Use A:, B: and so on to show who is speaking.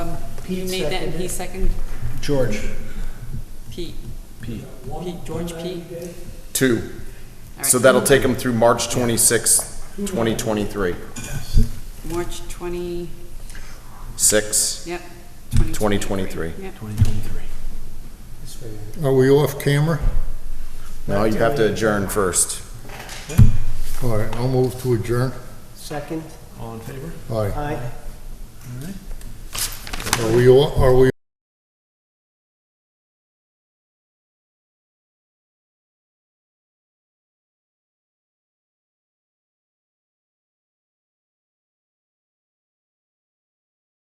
A: You
B: Pete
A: made that and he
B: seconded.
A: second,
C: George.
A: Pete,
C: Pete.
A: Pete, George Pete.
D: Two.
A: All
D: So
A: right.
D: that'll take them through March twenty-sixth, twenty twenty-three.
A: March twenty,
D: Six,
A: yep.
D: twenty twenty-three.
A: Yep,
C: 2023.
B: This way.
E: Are we off camera?
D: No, you have to adjourn first.
E: All right, I'll move to adjourn.
B: Second,
C: All in favor?
E: All right,
B: aye.
E: are we, o- are we